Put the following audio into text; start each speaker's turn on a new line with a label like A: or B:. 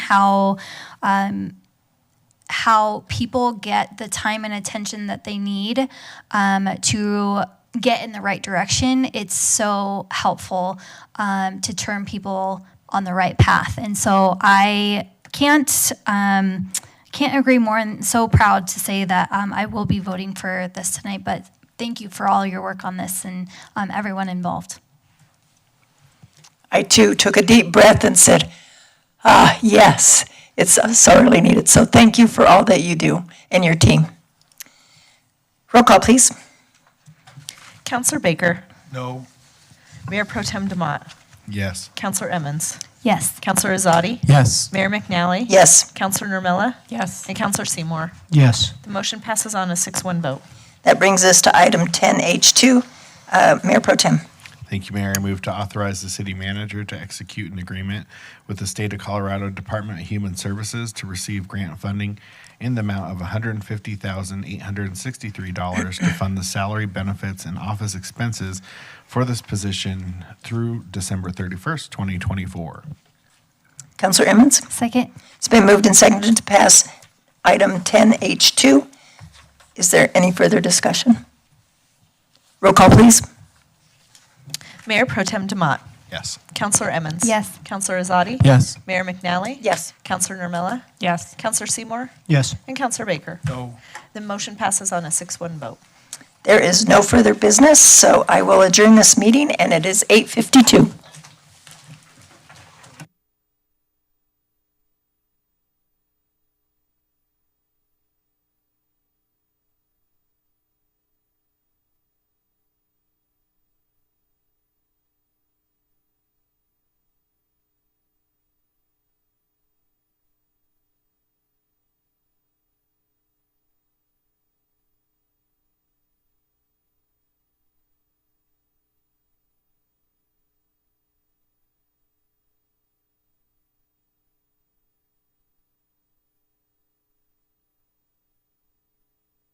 A: how um, how people get the time and attention that they need um, to get in the right direction. It's so helpful um, to turn people on the right path, and so I can't. Um, can't agree more and so proud to say that um, I will be voting for this tonight. But thank you for all your work on this and um, everyone involved.
B: I too took a deep breath and said, ah, yes, it's uh, sorely needed. So thank you for all that you do and your team. Roll call, please.
C: Counselor Baker,
D: No.
C: Mayor Pro Tem Demott,
D: Yes.
C: Counselor Emmons,
A: Yes.
C: Counselor Azadi,
D: Yes.
C: Mayor McNally.
B: Yes,
C: Counselor Nermella,
E: Yes.
C: and Counselor Seymour.
D: Yes.
C: The motion passes on a 6-1 vote.
B: that brings us to item 10H2. Uh, Mayor Pro Tem.
D: Thank you, Mayor. I move to authorize the city manager to execute an agreement with the state of Colorado Department of Human Services to receive grant funding in the amount of $150,863 to fund the salary, benefits, and office expenses for this position through December 31st, 2024.
B: Counselor Emmons?
A: Second.
B: It's been moved and seconded to pass item 10H2. Is there any further discussion? Roll call, please.
C: Mayor Pro Tem Demott,
D: Yes.
C: Counselor Emmons.
A: Yes.
C: Counselor Azadi.
D: Yes.
C: Mayor McNally.
B: Yes.
C: Counselor Nermella,
E: Yes.
C: Counselor Seymour,
D: Yes.
C: and Counselor Baker.
D: No.
C: The motion passes on a 6-1 vote.
B: There is no further business, so I will adjourn this meeting, and it is 8:52.